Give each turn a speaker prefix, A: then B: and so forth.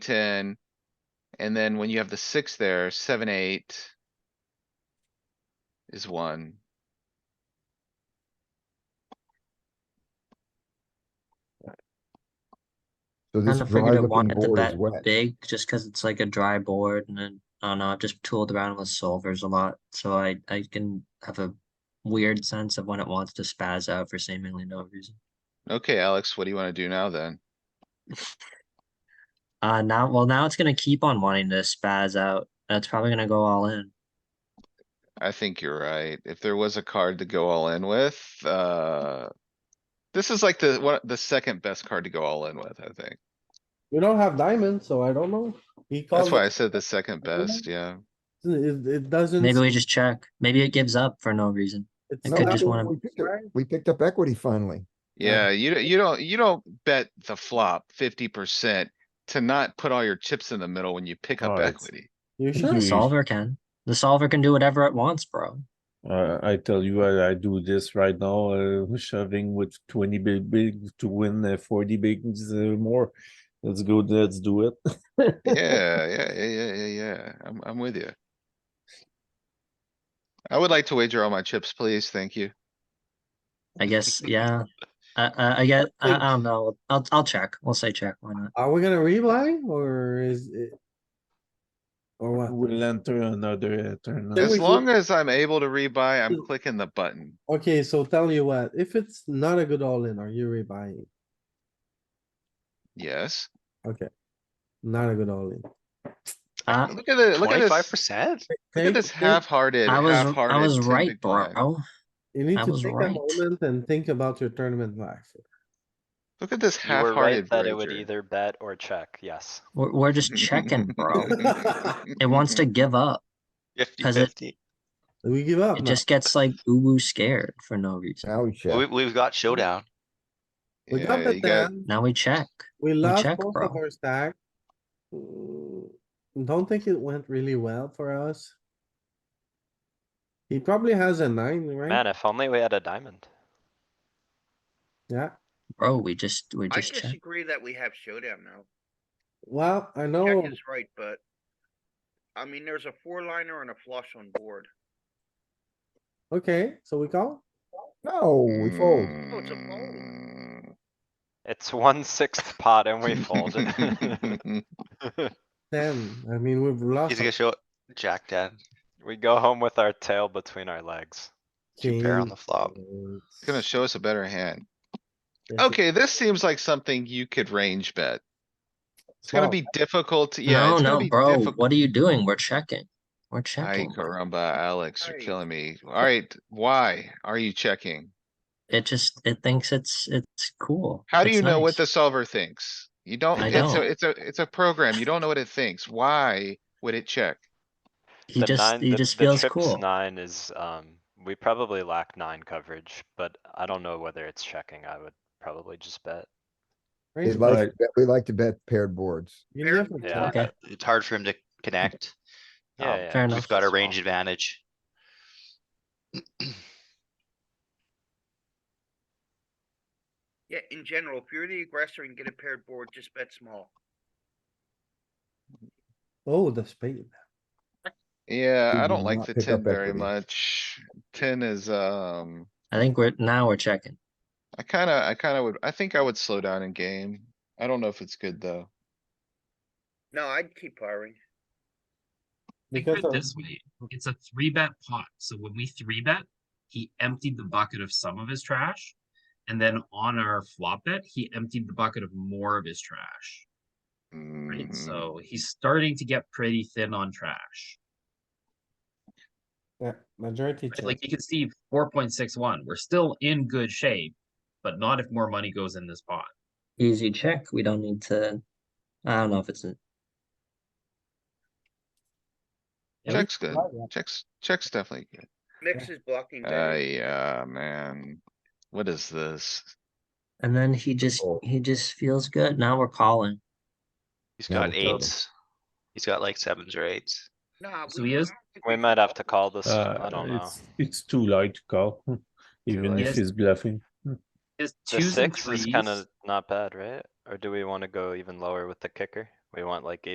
A: ten. And then when you have the six there, seven, eight. Is one.
B: So
C: Kind
B: this
C: of
B: dry
C: figured I
B: looking
C: wanted to
B: board is
C: bet
B: wet.
C: big just because it's like a dry board and then I don't know, I've just tooled around with solvers a lot, so I I can have a weird sense of when it wants to spaz out for seemingly no reason.
A: Okay, Alex, what do you wanna do now then?
C: Uh now well now it's gonna keep on wanting to spaz out. That's probably gonna go all in.
A: I think you're right. If there was a card to go all in with, uh. This is like the, one, the second best card to go all in with, I think.
D: We don't have diamonds, so I don't know. He
A: That's
D: calls,
A: why I
D: it,
A: said the second best, yeah.
D: it it doesn't.
C: Maybe we just check. Maybe it gives up for no reason.
D: it's
C: I
D: not
C: could
D: that
C: just
D: we-
C: wanna-
D: we picked it right.
B: We picked up equity finally.
A: Yeah, you, don't- you don't, you don't bet the flop fifty percent to not put all your chips in the middle when you pick up
E: Oh, it's-
A: equity.
D: You sure?
C: The solver can. The solver can do whatever it wants, bro.
E: Uh, I tell you, I, I do this right now, uh, shoving with twenty big, big to win uh, forty bigs uh, more. Let's go, let's do it.
A: Yeah, yeah, yeah, yeah, yeah, yeah. I'm, I'm with you. I would like to wager all my chips, please. Thank you.
C: I guess, yeah. I I, I get I, I don't know. I'll I'll check. We'll say check. Why not?
D: Are we gonna rebuy or is it? Or what?
E: We'll enter another uh, turn.
D: Then
A: As
D: we do-
A: long as I'm able to rebuy, I'm clicking the button.
D: Okay, so tell you what, if it's not a good all in, are you rebuying?
A: Yes.
D: Okay. Not a good all in.
C: Uh,
A: Look at the, look at
F: Twenty-five
A: this,
F: percent?
A: look at
D: Take-
A: this
D: take-
A: half-hearted,
C: I was
A: half-hearted.
C: I was
A: 10
C: right,
A: big blind.
C: bro.
D: You need
C: I
D: to
C: was
D: take a
C: right.
D: moment and think about your tournament life.
A: Look at this
F: You were right
A: half-hearted
F: that it would
A: wager.
F: either bet or check, yes.
C: We're, we're just checking, bro. It wants to give up.
G: Fifty
C: 'Cause it-
G: fifty.
D: We give up
C: It
D: now.
C: just gets like uwu scared for no reason.
B: Now we
G: We,
B: check.
G: we've got showdown.
D: We got
A: Mm-hmm. Yeah, Oh,
D: the
A: you got,
D: ten,
C: Now we check.
D: we lost
C: check,
D: both
C: bro.
D: of our stack. Mm, Don't think it went really well for us. He probably has a nine, right?
F: Man, if only we had a diamond.
D: Yeah,
C: Bro, we just we
H: I
C: just check.
H: disagree that we have showdown now.
D: well, I
C: Oh.
D: know,
H: Jack is right, but. I mean, there's a four liner and a flush on board.
D: okay, so we call?
B: No, we fold.
H: it's a fold.
A: Mm.
F: It's one sixth pot and we fold.
D: Ten, I mean, we've lost.
G: He's gonna show Jack ten.
F: We go home with our tail between our legs.
D: two
G: pair on the flop.
A: It's Gonna show us a better hand. Okay, this seems like something you could range bet. It's gonna be difficult, to- yeah.
C: Oh. no,
A: it's gonna
C: no,
A: be
C: bro.
A: difficult-
C: What are you doing? We're checking. We're
A: Ay,
C: checking. bro.
A: caramba, Alex, you're
H: Right.
A: killing me. Alright, why are you checking?
C: It just it thinks it's it's cool.
A: How do
C: It's
A: you know what the
C: nice.
A: solver thinks? You don't,
C: I
A: it's a,
C: don't.
A: it's a, it's a program. You don't know what it thinks. Why would it check?
C: he
F: The
C: just
F: nine-
C: he
F: the-
C: just
F: the
C: feels
F: trip's
C: cool.
F: Nine is, um, we probably lack nine coverage, but I don't know whether it's checking. I would probably just bet.
B: We
D: Right?
B: like,
E: Right.
B: to bet- we like to bet paired boards.
D: You never
F: Yeah.
D: check.
C: Okay.
G: It's hard for him to connect.
F: Yeah,
G: Um,
F: yeah,
C: Fair enough.
G: We've got a
F: Small.
G: range advantage.
H: Yeah, in general, if you're the aggressor and get a paired board, just bet small.
D: Oh, the spade.
A: Yeah,
B: We
A: I
B: will
A: don't like
B: not
A: the
B: pick
A: ten
B: up
A: very
B: equity.
A: much. Ten is, um,
C: I think we're now we're checking.
A: I kinda, I kinda would, I think I would slow down in game. I don't know if it's good though.
H: No, I'd keep firing.
I: Think
D: Because
I: of it
D: of-
I: this way, it's a three bet pot, so when we three bet, he emptied the bucket of some of his trash. And then on our flop bet, he emptied the bucket of more of his trash, right?
A: Mhm.
I: So he's starting to get pretty thin on trash.
D: Yeah, majority
I: right?
D: check.
I: Like you can see four point six one, we're still in good shape, but not if more money goes in this pot.
C: Easy check. We don't need to. I don't know if it's a,
I: Yeah, we-
A: Check's good. Checks, checks definitely good.
H: Mix is blocking
A: Uh,
H: better.
A: yeah, man. What is this?
C: and then he just
B: Oh.
C: he just feels good. Now we're calling.
G: He's
B: Yeah,
G: got
B: we'll fold.
G: eights. He's got like sevens or eights.
H: Nah,
I: So
H: we-
I: he is-
H: I don't think
F: We
H: can
F: might have
H: call.
F: to call this, I
E: Uh,
F: don't know.
E: it's, it's too light to call, even
I: light.
E: if he's bluffing.
I: His
F: The
I: twos and
F: six is
I: threes,
F: kinda not bad, right? Or do we wanna go even lower with the kicker? We want like